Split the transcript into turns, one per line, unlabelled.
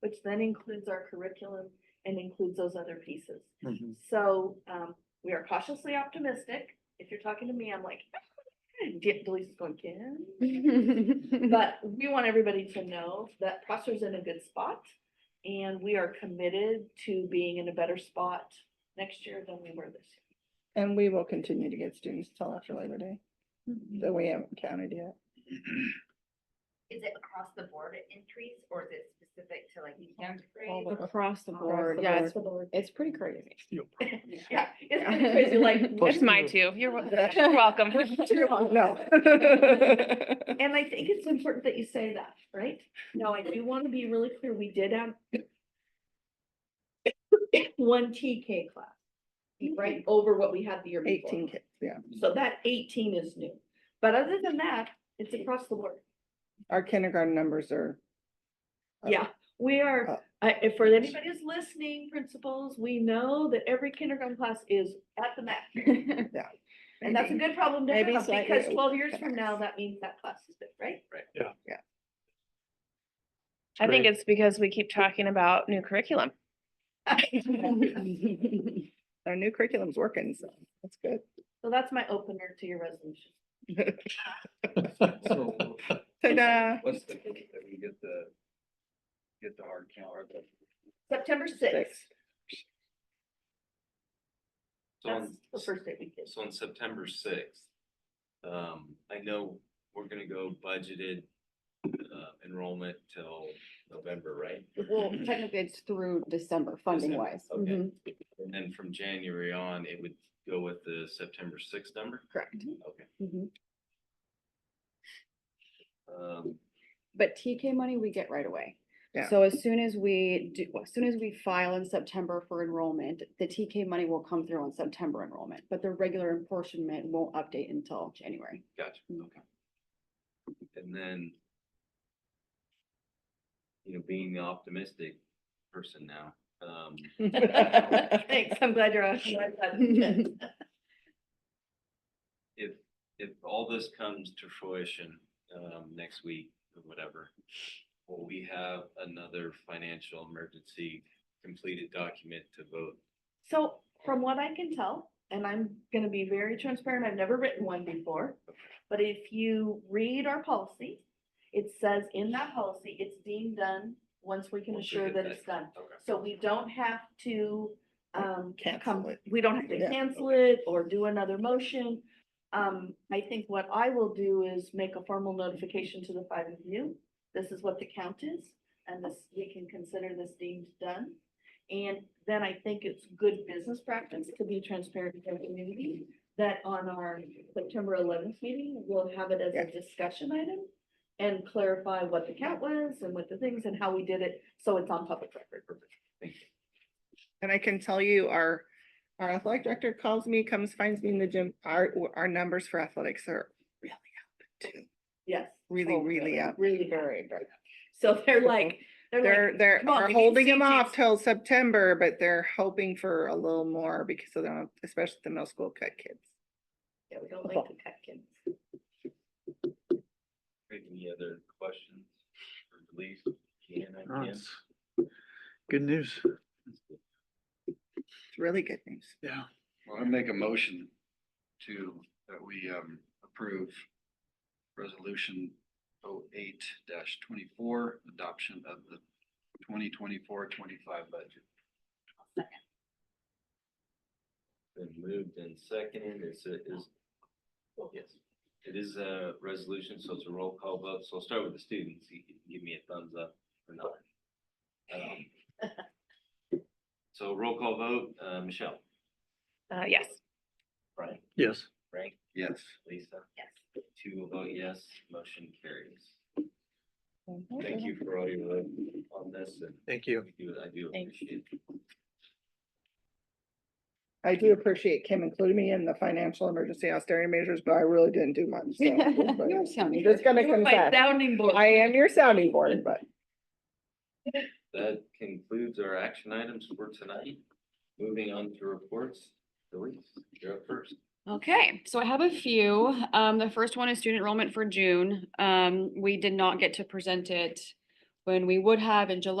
which then includes our curriculum and includes those other pieces.
Mhm.
So, um, we are cautiously optimistic. If you're talking to me, I'm like, get, Delisa's going, Kim? But we want everybody to know that Prosser's in a good spot. And we are committed to being in a better spot next year than we were this
And we will continue to get students till after Labor Day,
year.
that we haven't counted yet.
Is it across the board increase or is it specific to like the county
All
grade?
the-
Across the
Across
board,
the
yeah, it's,
board.
it's pretty crazy.
Yeah, it's kind of crazy, like.
Push
It's my
through.
two. You're wel- you're welcome.
No.
And I think it's important that you say that, right? Now, I do want to be really clear, we did have one TK class, right, over what we had the year before.
Eighteen kids, yeah.
So that eighteen is new, but other than that, it's across the board.
Our kindergarten numbers are. up.
Yeah, we
Uh,
are, I- if for anybody who's listening, principals, we know that every kindergarten class is at the max. And that's a good problem to have,
Maybe slightly
because
over
twelve years from now,
max.
that means that class is big, right?
I think
Great.
it's because we keep talking about new curriculum.
Our new curriculum's working, so that's good.
So that's my opener to your resolution.
So
Ta-da.
what's the, date that we get the, get the hard count or the.
September sixth,
So
that's
on,
the first day we did.
so on September sixth, um, I know we're gonna go budgeted uh, enrollment till November, right?
Well, technically it's through December funding
December,
wise.
okay.
Mhm,
And then from January on, it would go with the September sixth number?
Correct.
Okay.
Mhm.
Um,
But TK money we get right away.
Yeah.
So as soon as we do, well, as soon as we file in September for enrollment, the TK money will come through on September enrollment, but the regular apportionment won't update until January.
gotcha,
Mm.
okay. And then you know, being the optimistic person now, um,
Thanks, I'm glad you're on. I'm glad.
if, if all this comes to fruition, um, next week or whatever, will we have another financial emergency completed document to vote?
So from what I can tell, and I'm gonna be very transparent, I've never written one before. But if you read our policy, it says in that policy, it's being done once we can
Once we
assure
get
that
that-
it's done.
Okay.
So we don't have to, um,
Cancel
come,
it.
we don't have to
Yeah.
cancel it or do another motion. Um, I think what I will do is make a formal notification to the five of you. This is what the count is, and this, we can consider this deemed done. And then I think it's good business practice to be transparent with the community that on our September eleventh meeting, we'll have it as
Yeah.
a discussion item and clarify what the count was and what the things and how we did it, so it's on public record.
And I can tell you, our, our athletic director calls me, comes, finds me in the gym. Our, our numbers for athletics are really up too.
Yes.
Really, really up.
Really very, very. So they're like, they're
They're,
like,
they're,
"Come on,
are
we need
holding them off
CTs."
till September, but they're hoping for a little more because of them, especially the middle school cut kids.
yeah, we don't like to cut kids.
Any other questions or beliefs? Can I
Oh,
can?
it's Good news,
It's really good news.
yeah.
Well, I make a motion to, that we um approve resolution 8 twenty-four, adoption of the 2024-25 budget.
Been moved and seconded, it's, a- is, oh, yes, it is a resolution, so it's a roll call vote, so I'll start with the students, you can give me a thumbs up or not. Um, So roll call vote, uh, Michelle,
uh, yes.
Brian,
Yes,
Frank,
Yes.
Lisa,
Yes.
two will vote yes, motion carries. Thank you for all your work on this, and
thank you.
I do- I do appreciate it.
I do appreciate Kim including me in the financial emergency austerity measures, but I really didn't do much. so, but
You're
I'm
sounding
Just gonna
You're my
confess,
sounding board.
I am your sounding board, but
That concludes our action items for tonight, moving on to reports, Elise, you're up first.
Okay, so I have a few. Um, the first one is student enrollment for June. Um, we did not get to present it when we would have in July.